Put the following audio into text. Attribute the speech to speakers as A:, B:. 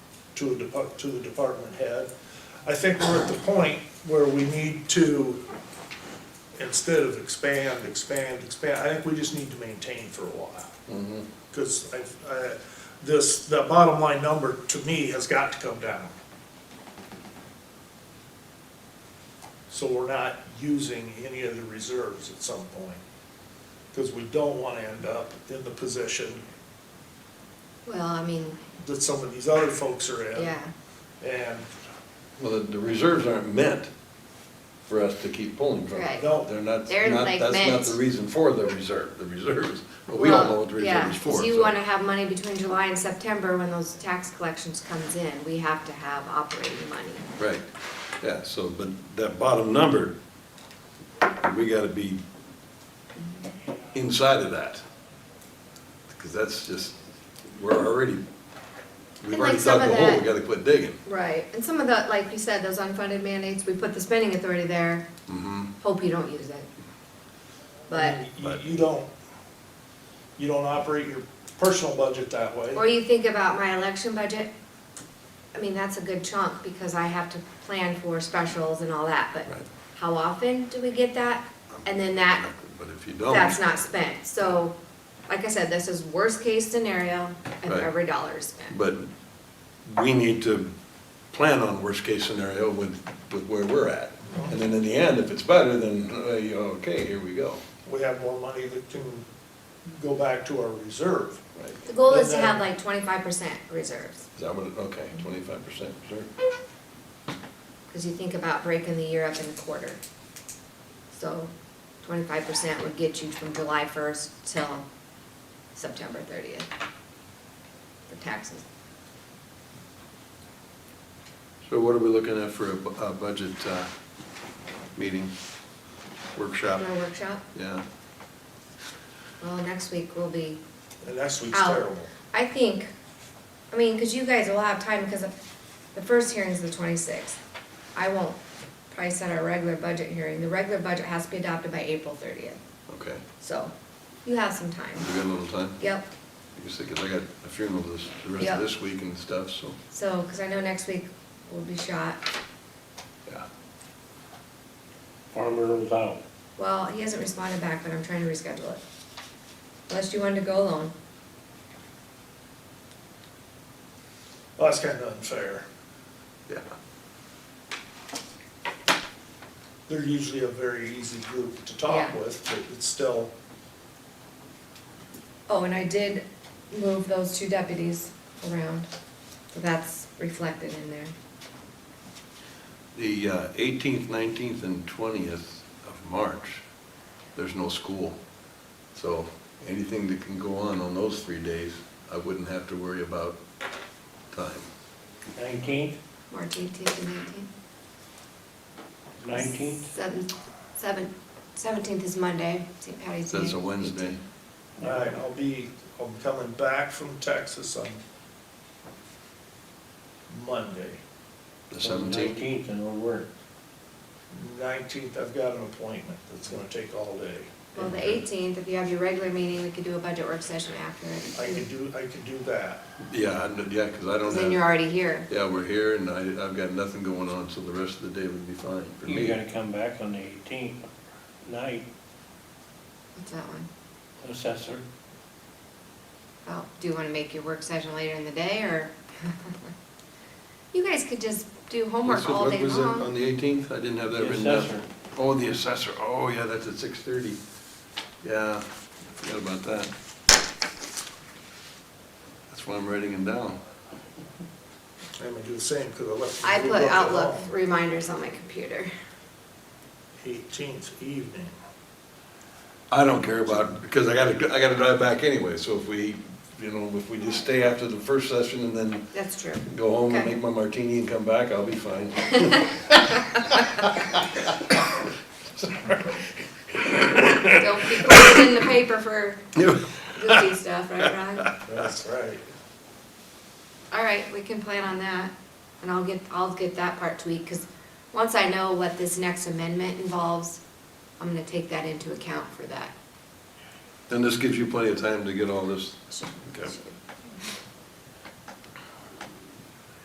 A: to a depart, to the department head. I think we're at the point where we need to, instead of expand, expand, expand, I think we just need to maintain for a while. Cause I, I, this, the bottom line number to me has got to come down. So we're not using any of the reserves at some point. Cause we don't wanna end up in the position
B: Well, I mean,
A: that some of these other folks are in.
B: yeah,
A: And
C: Well, the, the reserves aren't meant for us to keep pulling from.
B: Right.
A: No.
C: They're not,
B: They're,
C: not,
B: like,
C: that's not
B: meant-
C: the reason for the reserve, the reserves, but we don't know what the
B: Well, yeah,
C: reserve is for.
B: 'cause you
C: so-
B: wanna have money between July and September when those tax collections comes in, we have to have operating money.
C: Right, yeah, so, but that bottom number, we gotta be inside of that. Because that's just, we're already,
B: And, like,
C: we've already
B: some
C: dug
B: of
C: the hole,
B: that-
C: we gotta quit digging.
B: Right, and some of the, like you said, those unfunded mandates, we put the spending authority there,
C: Mhm.
B: hope you don't use it. But,
C: Mm-hmm.
A: you, you don't, you don't operate your personal budget that
B: or
A: way.
B: you think about my election budget, I mean, that's a good chunk, because I have to plan for specials and all that, but
C: Right.
B: how often do we get that? And then that
C: But if you
B: that's
C: don't,
B: not spent. So, like I said, this is worst case scenario and
C: Right.
B: every dollar is spent.
C: but we need to plan on worst-case scenario with, with where we're at. And then in the end, if it's better, then, uh, you- okay, here we go.
A: We have more money that can go back to our reserve.
C: Right.
B: The goal is to
C: uh,
B: have like twenty-five percent reserves,
C: Is that what, it- okay, twenty-five percent reserve.
B: because you think about breaking the year up in a quarter. So twenty-five percent would get you from July first till September thirtieth for taxes.
C: So what are we looking at for a, bu- a budget, uh, meeting, workshop?
B: For a workshop,
C: Yeah,
B: well, next week will be
A: And next week's
B: out.
A: terrible.
B: I think, I mean, because you guys will have time, because the first hearing's the twenty-sixth. I won't probably set our regular budget hearing, the regular budget has to be adopted by April thirtieth,
C: okay,
B: so you have some time.
C: we got a little time?
B: Yep,
C: I guess, because I got a funeral this, the rest
B: Yeah.
C: of this week and stuff, so,
B: so, because I know next week will be shot,
C: yeah.
D: Farmer was out.
B: well, he hasn't responded back, but I'm trying to reschedule it. Unless you wanted to go alone,
A: Well, that's kinda unfair.
C: Yeah.
A: They're usually a very easy group to talk
B: Yeah.
A: with, but it's still,
B: oh, and I did move those two deputies around, so that's reflected in there.
C: The uh, 18th, 19th, and 20th of March, there's no school. So anything that can go on on those three days, I wouldn't have to worry about time.
D: Nineteenth,
B: March eighteenth and nineteenth.
D: nineteenth,
B: Seven, seven, seventeenth is Monday, St. Patty's Day.
C: That's a Wednesday.
A: all right, I'll be, I'm coming back from Texas on Monday.
C: The 17th,
D: Nineteenth, and we'll work.
A: Nineteenth, I've got an appointment that's gonna take all day.
B: Well, the eighteenth, if you have your regular meeting, we could do a budget work session after
A: I can
B: it.
A: do, I can do that.
C: yeah, I kn- yeah, because I don't
B: Because then you're
C: have,
B: already here.
C: yeah, we're here, and I, I've got nothing going on, so the rest of the day would be fine for
D: You're
C: me.
D: gonna come back on the eighteenth night,
B: What's that one?
D: assessor.
B: Oh, do you want to make your work session later in the day or? You guys could just do homework
C: So
B: all
C: what
B: day
C: was it, On
B: long.
C: the 18th? I didn't have that
D: The
C: written down.
D: assessor.
C: Oh, the assessor, oh, yeah, that's at 6:30. Yeah, forgot about that. That's why I'm writing them down.
A: I'm gonna do the same, because I left. the
B: I
A: group
B: put
A: up at
B: Outlook
A: home.
B: reminders on my computer.
A: Eighteenth evening.
C: I don't care about, because I gotta, I gotta drive back anyway, so if we, you know, if we just stay after the first session and then
B: That's true.
C: go home and
B: Okay.
C: make my martini and come back, I'll be fine.
B: Don't be putting in the paper for goofy stuff, right, Ron?
A: That's right.
B: All right, we can plan on that, and I'll get, I'll get that part tweaked, because once I know what this next amendment involves, I'm gonna take that into account for that.
C: And this gives you plenty of time to get all this,
B: Should-
C: Okay.
B: should-